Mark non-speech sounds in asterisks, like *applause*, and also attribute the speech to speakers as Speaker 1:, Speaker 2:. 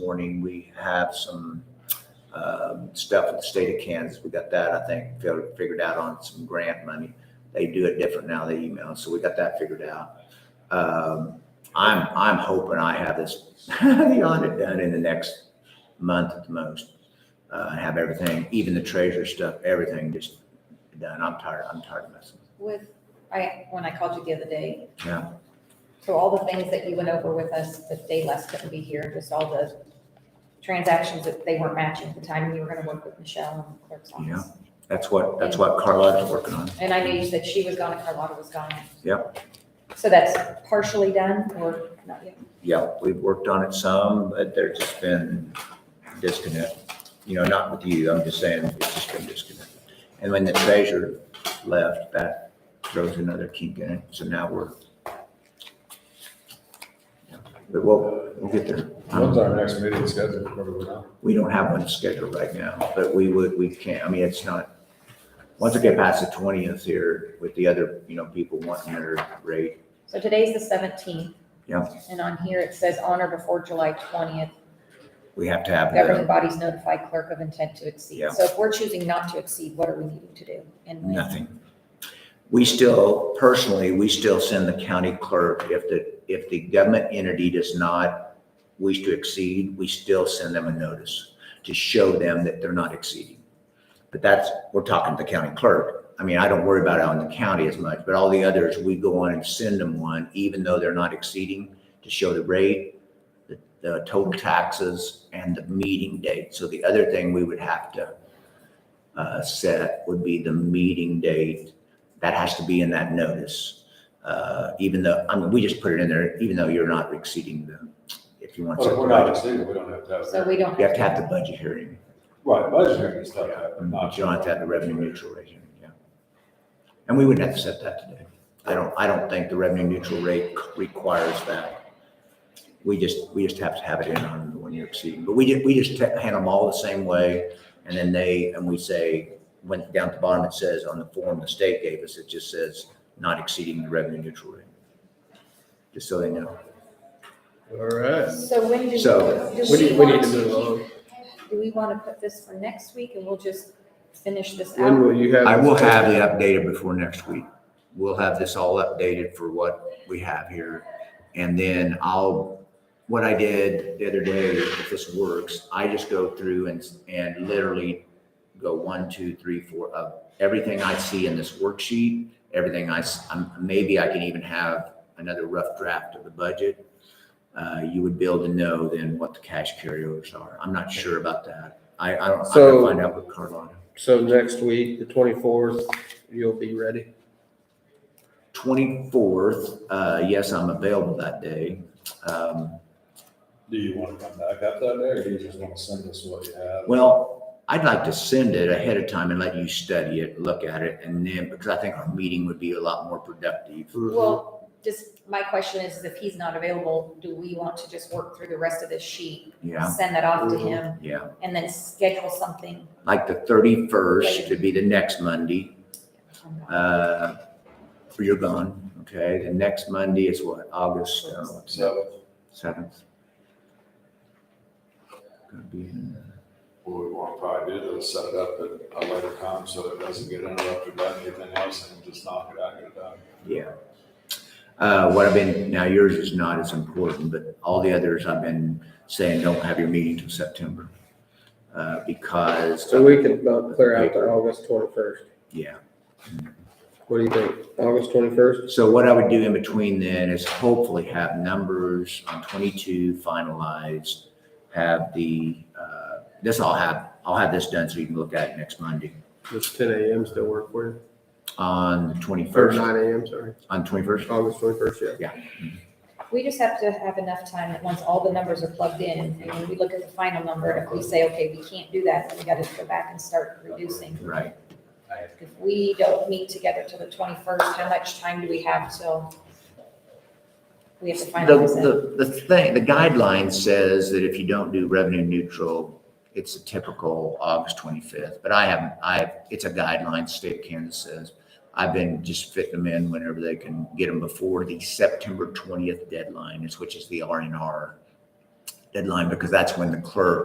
Speaker 1: morning. We have some um, stuff with the state of Kansas. We got that, I think, fi- figured out on some grant money. They do it different now, they email, so we got that figured out. Um, I'm, I'm hoping I have this, *laughs* the audit done in the next month at the most. Uh, I Have everything, even the treasure stuff, everything just done. I'm tired, I'm tired of messing.
Speaker 2: With, I, when I called you the other day.
Speaker 1: Yeah.
Speaker 2: So all the things that you went over with us, that day less couldn't be here, just all the transactions that they weren't matching at the time you were gonna work with Michelle and the clerk's office.
Speaker 1: That's what, that's what Carlotta's working on.
Speaker 2: And I knew you said she was gone and Carlotta was gone.
Speaker 1: Yep.
Speaker 2: So that's partially done or not yet?
Speaker 1: Yeah, we've worked on it some, but there's just been disconnect. You know, not with you, I'm just saying, it's just been disconnect. And when the treasurer left, that throws another kink in it, so now we're. But we'll, we'll get there.
Speaker 3: When's our next meeting scheduled? Remember we're not-
Speaker 1: We don't have one scheduled right now, but we would, we can't, I mean, it's not, once we get past the twentieth here with the other, you know, people wanting their rate,
Speaker 2: So today's the seventeenth.
Speaker 1: Yeah.
Speaker 2: And on here it says on or before July twentieth,
Speaker 1: we have to have
Speaker 2: governing
Speaker 1: the,
Speaker 2: bodies notify clerk of intent to exceed.
Speaker 1: Yeah.
Speaker 2: So if we're choosing not to exceed, what are we needing to do? And when?
Speaker 1: nothing. We still, personally, we still send the county clerk, if the, if the government entity does not wish to exceed, we still send them a notice to show them that they're not exceeding. But that's, we're talking to the county clerk. I mean, I don't worry about it on the county as much, but all the others, we go on and send them one, even though they're not exceeding, to show the rate, the, the total taxes, and the meeting date. So the other thing we would have to uh, set would be the meeting date. That has to be in that notice. Uh, even though, I mean, we just put it in there, even though you're not exceeding the, if you want to. set
Speaker 3: Well, if
Speaker 1: the
Speaker 3: we're not
Speaker 1: budget.
Speaker 3: exceeding, we don't have to have.
Speaker 2: So we don't
Speaker 1: You have
Speaker 2: have
Speaker 1: to have the budget hearing.
Speaker 3: Right, budget hearing and stuff. but not-
Speaker 1: You don't have to have the revenue neutral rate hearing, yeah. And we wouldn't have to set that today. I don't, I don't think the revenue neutral rate requires that. We just, we just have to have it in on the one year exceeding, but we just, we just ta- hand them all the same way. And then they, and we say, went down at the bottom, it says on the form the state gave us, it just says not exceeding the revenue neutral rate. Just so they know.
Speaker 4: All right.
Speaker 2: So when do we?
Speaker 1: So-
Speaker 2: do
Speaker 4: We need, we need
Speaker 2: want
Speaker 4: to move on.
Speaker 2: keep- Do we want to put this for next week and we'll just finish this
Speaker 4: When
Speaker 2: out?
Speaker 4: will you have?
Speaker 1: I will have it updated before next week. We'll have this all updated for what we have here. And then I'll, what I did the other day, if this works, I just go through and, and literally go one, two, three, four, of everything I see in this worksheet, everything I, s- I'm- maybe I can even have another rough draft of the budget. Uh, you would be able to know then what the cash carryovers are. I'm not sure about that. I, I don't, I'm gonna
Speaker 4: So-
Speaker 1: find out with Carlotta.
Speaker 4: So next week, the twenty-fourth, you'll be ready.
Speaker 1: 24th, uh, yes, I'm available that day. Um,
Speaker 3: Do you want to come back up that day or do you just want to send us what you have?
Speaker 1: Well, I'd like to send it ahead of time and let you study it, look at it, and then, because I think our meeting would be a lot more productive.
Speaker 2: Well, just, my question is, if he's not available, do we want to just work through the rest of this sheet?
Speaker 1: Yeah,
Speaker 2: Send that off to him
Speaker 1: yeah.
Speaker 2: and then schedule something?
Speaker 1: Like the 31st would be the next Monday. Uh, You're gone, okay? The next Monday is what, August
Speaker 3: So,
Speaker 1: 7th? Gonna be in-
Speaker 3: what we want to probably do is set it up at a later time so it doesn't get interrupted by anything else and just knock it out and get it done.
Speaker 1: Yeah. Uh, what I've been, now yours is not as important, but all the others I've been saying, don't have your meeting till September. Uh, because.
Speaker 4: So we can about clear out to August twenty-first.
Speaker 1: Yeah.
Speaker 4: What do you think? August twenty-first?
Speaker 1: So what I would do in between then is hopefully have numbers on twenty-two finalized. Have the, uh, this I'll have, I'll have this done so you can look at it next Monday
Speaker 4: Does ten AM still work for you?
Speaker 1: on the
Speaker 4: Or
Speaker 1: twenty-first,
Speaker 4: nine AM, sorry.
Speaker 1: on twenty-first.
Speaker 4: August twenty-first, yeah.
Speaker 2: We just have to have enough time that once all the numbers are plugged in and when we look at the final number, if we say, okay, we can't do that, then we got to go back and start reducing.
Speaker 1: Right.
Speaker 2: If we don't meet together till the twenty-first, how much time do we have till? We have to finalize it.
Speaker 1: The, the, the thing, the guideline says that if you don't do revenue neutral, it's a typical August twenty-fifth, but I haven't, I, it's a guideline, state of Kansas says. I've been just fitting them in whenever they can get them before the September twentieth deadline, is which is the R and R. deadline because that's when the clerk